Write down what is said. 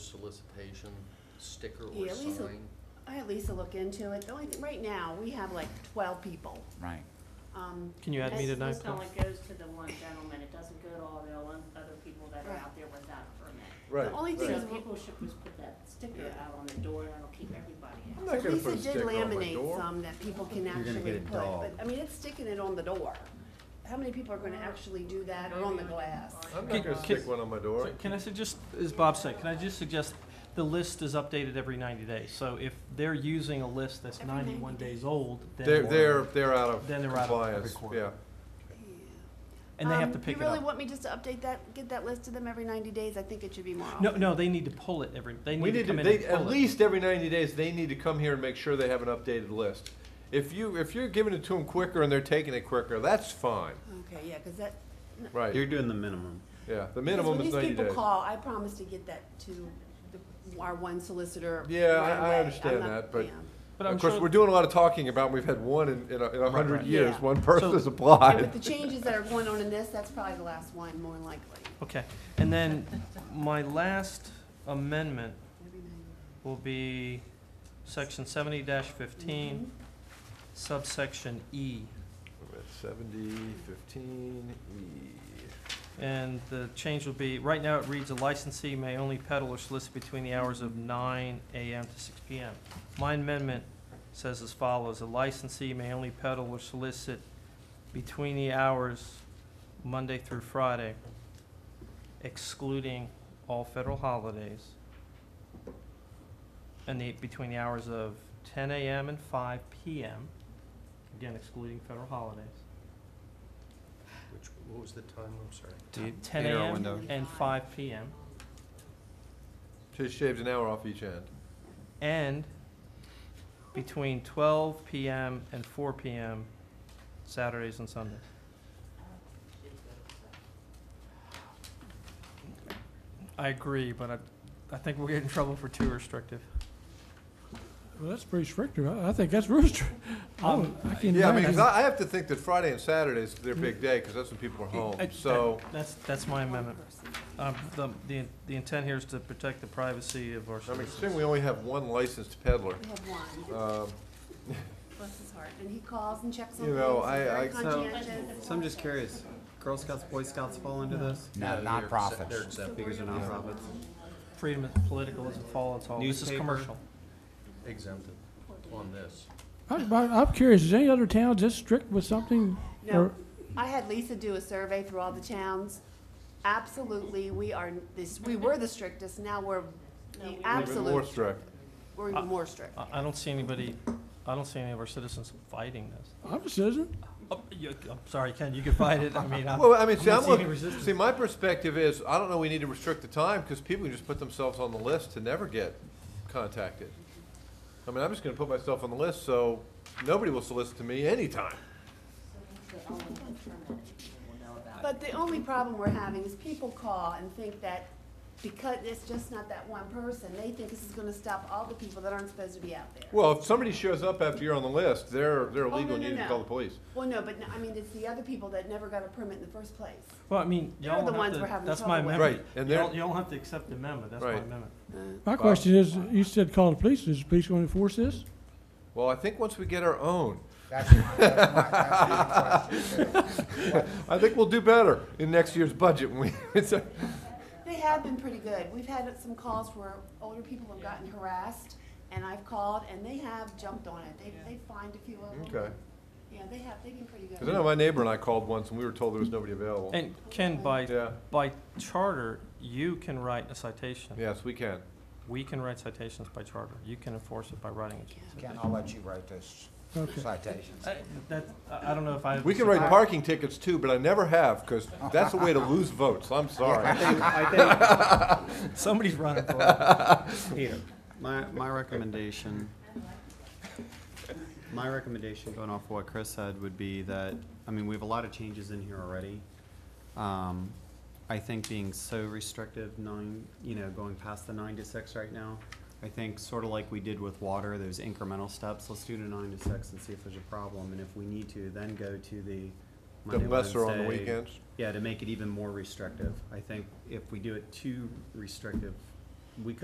solicitation sticker or Yeah, Lisa, sign? I had Lisa look into it. The only thing, right now, we have like twelve people. right. Um, Can you add me This- tonight, This only please? goes to the one gentleman, it doesn't go to all the other- other people that are out there without a permit. the only thing is, So people should just put that sticker Yeah. out on the door, that'll keep everybody out. I'm so not gonna Lisa put a did sticker on my laminate door. some that people can gonna actually get a put, dog. but, I mean, it's sticking it on the door. How many people are gonna actually do that or on the glass? I'm Can- not gonna can- stick one on my door. So Can I suggest, as Bob said, can I just suggest, the list is updated every ninety days, so if they're using a list that's Every 90 ninety-one days. days old, then. They're, they're, they're out of Then they're out of every compliance, quarter. yeah. And they have Um, to pick it You really up. want me just to update that, get that list to them every ninety days? I think it should be more often. No, no, they need to pull it every, they need We to need to, come in and they, pull it. at least every ninety days, they need to come here and make sure they have an updated list. If you, if you're giving it to them quicker and they're taking it quicker, that's fine, Okay, yeah, cause that, right, You're doing the minimum. yeah, the because minimum when is these ninety days. people call, I promise to get that to the, our one solicitor Yeah, I- right I away. I'm understand not- that, but- yeah. But I'm Of course, sure- we're doing a lot of talking about, we've had one in, in a, in a hundred right. years, Yeah. one person So- has And with the applied. changes that are going on in this, that's probably the last one, more than likely. Okay, and then my last amendment Every night. will be section seventy fifteen, Mm-hmm. subsection E. Seventy, fifteen, E. And the change will be, right now it reads, "A licensee may only peddle or solicit between the hours of nine AM to six PM." My amendment says as follows, "A licensee may only peddle or solicit between the hours Monday through Friday, excluding all federal holidays, and the, between the hours of ten AM and five PM, again excluding federal holidays, Which, what was the time, I'm sorry? The ten eight-hour AM window. and five PM. So you shaved an hour off each end. and between 12 p.m. and 4 p.m. Saturdays and Sundays. I agree, but I, I think we'll get in trouble for too restrictive. Well, that's pretty restrictive. I, I think that's rooster. I would- I can Um, Yeah, I mean, 'cause imagine. I, I have to think that Friday and Saturday is their big day, because that's when people are home, I- Oh, so. That's, that's my amendment. Um, the, the, the intent here is to protect the privacy of our I mean, citizens. considering we only have one licensed peddler, We have one, um, bless his heart, and he calls and checks on You things, know, he's I- very I- So- conscientious. So I'm just curious, Girl Scouts, Boy Scouts fall into this? No, Yeah, they're nonprofits. accept- They're accepted, Figures are nonprofits. Freedom of political isn't fall, it's all, this is Newspaper. commercial. exempted on this. I- but I'm curious, is any other town just strict with something? No, Or- I had Lisa do a survey through all the towns, absolutely, we are, this, we were the strictest, now we're No, we the were- even more absolute, strict. we're even more strict. I, I don't see anybody, I don't see any of our citizens fighting this. I'm a citizen. Oh, you- I'm sorry, Ken, you can fight it, I mean, I'm. Well, I mean, see, not I'm seeing any looking, resistance. see, my perspective is, I don't know, we need to restrict the time, because people can just put themselves on the list to never get contacted. I mean, I'm just gonna put myself on the list, so nobody will solicit to me anytime. But only the permitted people will know about it. But the only problem we're having is people call and think that because it's just not that one person, they think this is gonna stop all the people that aren't supposed to be out there. Well, if somebody shows up after you're on the list, they're, they're Oh, illegal, no, and no, you need to no. call the police. Well, no, but, no- I mean, it's the other people that never got a permit in the first place. Well, I mean, They're y'all the don't have ones we're to, having that's trouble my with. amendment. Right, and You they're- don't, you don't have to accept the amendment, that's my Right. amendment. My question is, you said call the police. Is the police going to enforce this? Well, I think once we get our own, That's my, that's my, that's my question. I think we'll do better in next year's budget when we, it's a- They have been pretty good. We've had some calls where older people have gotten harassed, and I've called, and they have jumped on it. They, they find a few of them. Okay. Yeah, they have, they've been pretty Because I know good. my neighbor and I called once and we were told there was nobody available. And Ken, by, Yeah. by charter, you can write a citation. Yes, we can. We can write citations by charter. You can enforce it by writing a citation. Ken, I'll let you write those Okay. citations. I- That, I I don't know if I. We can write parking tickets too, but I never have because that's a way to lose votes. I'm sorry. Somebody's running for it. Peter. My, my recommendation, my recommendation going off what Chris said would be that, I mean, we have a lot of changes in here already. Um, I think being so restrictive, nine, you know, going past the nine to six right now, I think sort of like we did with water, those incremental steps, let's do the nine to six and see if there's a problem. And if we need to, then go to the The Monday, lesser on the Wednesday, weekends. yeah, to make it even more restrictive. I think if we do it too restrictive, we could